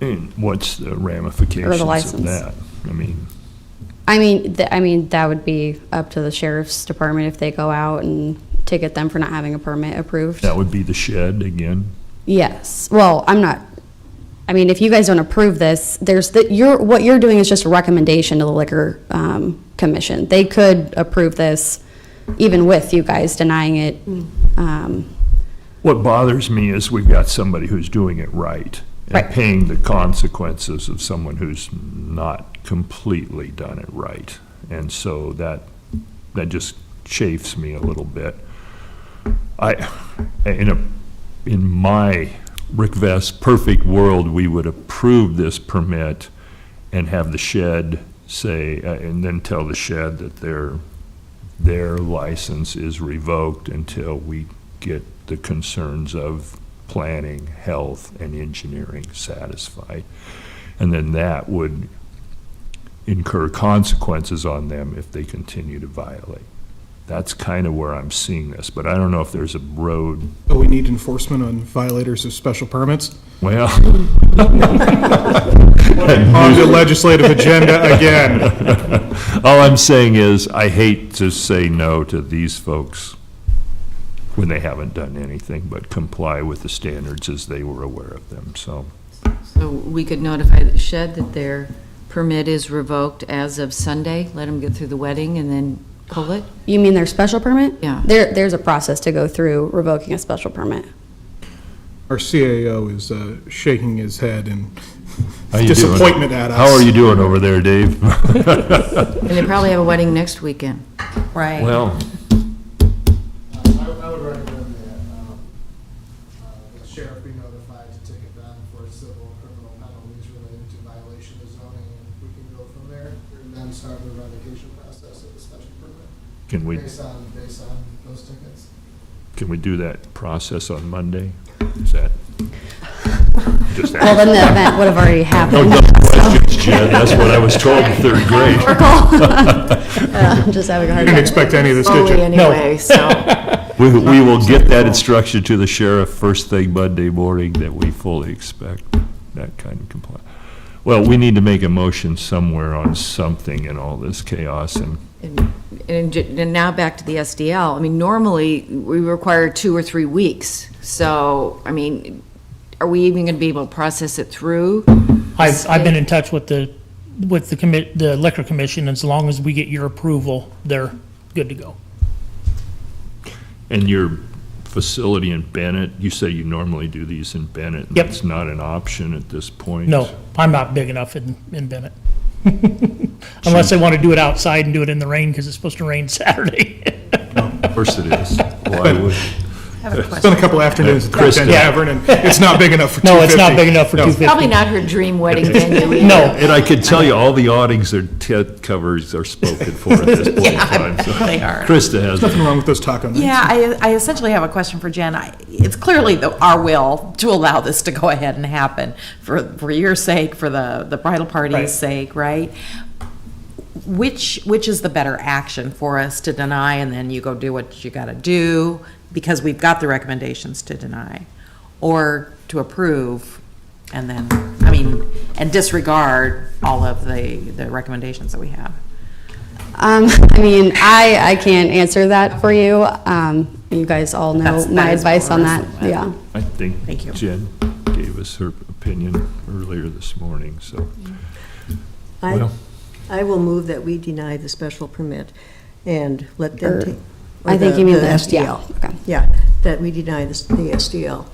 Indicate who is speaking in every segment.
Speaker 1: And what's the ramifications of
Speaker 2: license.
Speaker 1: that? I mean,
Speaker 2: I mean, th- I mean, that would be up to the sheriff's department if they go out and ticket them for not having a permit approved.
Speaker 1: that would be the shed again?
Speaker 2: Yes. Well, I'm not, I mean, if you guys don't approve this, there's, the, you're, what you're doing is just a recommendation to the liquor, um, commission. They could approve this even with you guys denying it. Um,
Speaker 1: What bothers me is we've got somebody who's doing it right and
Speaker 2: Right.
Speaker 1: paying the consequences of someone who's not completely done it right. And so that, that just chafes me a little bit. I, in a, in my Rick Vest perfect world, we would approve this permit and have the shed say, uh, and then tell the shed that their, their license is revoked until we get the concerns of planning, health, and engineering satisfied. And then that would incur consequences on them if they continue to violate. That's kind of where I'm seeing this, but I don't know if there's a road,
Speaker 3: But we need enforcement on violators of special permits.
Speaker 1: well,
Speaker 3: On the legislative agenda again.
Speaker 1: all I'm saying is, I hate to say no to these folks when they haven't done anything but comply with the standards as they were aware of them, so.
Speaker 4: So we could notify the shed that their permit is revoked as of Sunday, let them get through the wedding and then pull it?
Speaker 2: You mean their special permit?
Speaker 4: Yeah.
Speaker 2: There, there's a process to go through revoking a special permit.
Speaker 3: Our CAO is uh, shaking his head in
Speaker 1: How you doing?
Speaker 3: disappointment at us.
Speaker 1: How are you doing over there, Dave?
Speaker 4: And they probably have a wedding next weekend.
Speaker 2: Right.
Speaker 1: Well,
Speaker 5: I Uh, I would recommend that um, uh, the sheriff be notified to ticket them for civil and criminal penalties related to violation of zoning, and we can go from there, and then start the revocation process of the special permit,
Speaker 1: can we,
Speaker 5: based on, based on those tickets.
Speaker 1: can we do that process on Monday? Is that? just
Speaker 2: Well,
Speaker 1: that-
Speaker 2: then the event would have already
Speaker 1: Oh, No
Speaker 2: happened.
Speaker 1: dumb questions, Jen, that's what I was told in third grade.
Speaker 2: Uh, I'm just having a
Speaker 3: I
Speaker 2: hard
Speaker 3: didn't
Speaker 2: time.
Speaker 3: expect any of this, did
Speaker 4: Slowly
Speaker 3: you?
Speaker 4: anyway, so.
Speaker 1: We, we will get that instruction to the sheriff first thing Monday morning that we fully expect that kind of compliance. Well, we need to make a motion somewhere on something in all this chaos and,
Speaker 4: And- And ju- and now back to the SDL. I mean, normally, we require two or three weeks. So, I mean, are we even going to be able to process it through?
Speaker 6: I've, I've been in touch with the, with the commit, the liquor commission, as long as we get your approval, they're good to go.
Speaker 1: and your facility in Bennett, you say you normally do these in Bennett. and
Speaker 6: Yep.
Speaker 1: It's not an option at this point.
Speaker 6: No, I'm not big enough in, in Bennett. Unless they want to do it outside and do it in the rain, because it's supposed to rain Saturday.
Speaker 1: Of course it is. Why would?
Speaker 3: It's been a couple afternoons at the
Speaker 1: Kristen.
Speaker 3: Bend Tavern, and it's not big enough for 250.
Speaker 6: No, it's not big enough for
Speaker 3: No.
Speaker 6: two fifty.
Speaker 4: Probably not her dream wedding venue either.
Speaker 6: No,
Speaker 1: And I could tell you, all the awnings or tent covers are spoken for at this point in time. so.
Speaker 7: They are.
Speaker 1: Krista has.
Speaker 3: Nothing wrong with those taco nights.
Speaker 7: Yeah, I, I essentially have a question for Jen. I- It's clearly the, our will to allow this to go ahead and happen for, for your sake, for the, the bridal
Speaker 6: Right.
Speaker 7: party's sake, right? Which, which is the better action for us to deny and then you go do what you gotta do because we've got the recommendations to deny? Or to approve and then, I mean, and disregard all of the, the recommendations that we have?
Speaker 2: Um, I mean, I, I can't answer that for you. Um, you guys all know
Speaker 7: That's- that
Speaker 2: my
Speaker 7: is
Speaker 2: advice on that,
Speaker 7: what we're
Speaker 2: yeah.
Speaker 1: I think
Speaker 7: Thank you.
Speaker 1: Jen gave us her opinion earlier this morning, so.
Speaker 8: I,
Speaker 1: Well-
Speaker 8: I will move that we deny the special permit and let them
Speaker 2: Or-
Speaker 8: take. or
Speaker 2: Er, I think you mean the, yeah,
Speaker 8: SDL.
Speaker 2: okay.
Speaker 8: Yeah, that we deny the, s- the SDL.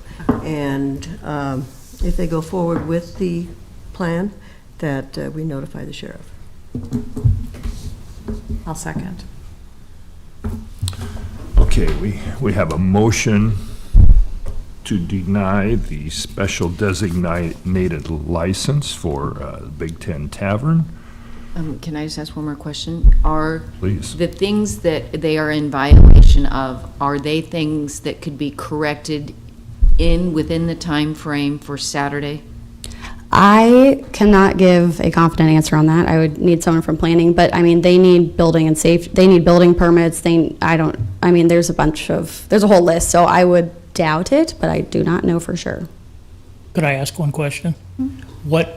Speaker 8: And um, if they go forward with the plan, that uh, we notify the sheriff.
Speaker 7: I'll second.
Speaker 1: Okay, we, we have a motion to deny the special designated license for uh, Big Ten Tavern.
Speaker 4: Um, Can I just ask one more question? Are
Speaker 1: Please.
Speaker 4: the things that they are in violation of, are they things that could be corrected in, within the time frame for Saturday?
Speaker 2: I cannot give a confident answer on that. I would need someone from planning, but I mean, they need building and safe, they need building permits, they, I don't, I mean, there's a bunch of, there's a whole list, so I would doubt it, but I do not know for sure.
Speaker 6: Could I ask one question? What